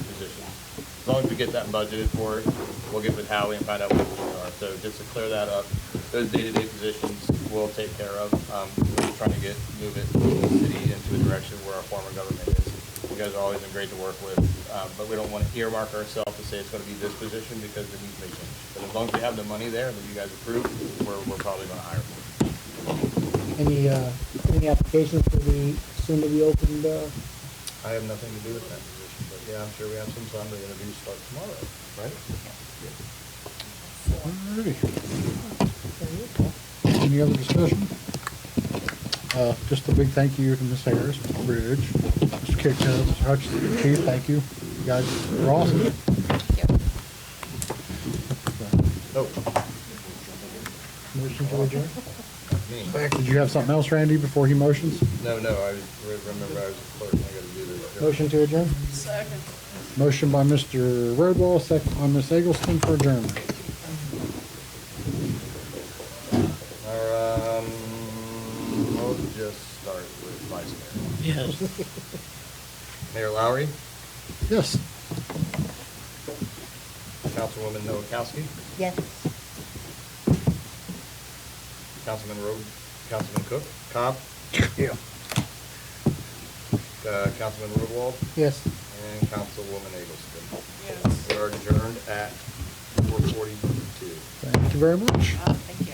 long as we get that budgeted for, it, we'll get with Howie and find out what those are. So just to clear that up, those day-to-day positions we'll take care of. Um, We're just trying to get, move it, the city into a direction where our form of government is. You guys have always been great to work with, uh, but we don't want to earmark ourselves to say it's going to be this position because it needs to be changed. But as long as we have the money there and that you guys approve, we're, we're probably going to hire. Any, uh, any applications for the soon to be opened, uh, I have nothing to do with that position, but yeah, I'm sure we have some, so I'm going to interview start tomorrow, right? Any other discussion? Uh, Just a big thank you to Ms. Harris, Mr. Bridge, Mr. Kitchen, Mr. Hutchinson, Chief, thank you. You guys were awesome. No, Motion to adjourn. me. Did you have something else, Randy, before he motions? No, no, I was- re- remember I was a clerk, and I got to do this. Motion to adjourn? Second. Motion by Mr. Roadwall, second by Ms. Eggleston for adjournment. Our, um, we'll just start with Vice Mayor. Yes. Mayor Lowry, Yes. Councilwoman Noakowski, Yes. Councilman Road, Councilman Cook, Cobb, Yeah. uh, Councilman Roodwall, Yes. and Councilwoman Agelston. Yes. We are adjourned at four forty-two. Thank you very much. Uh, thank you.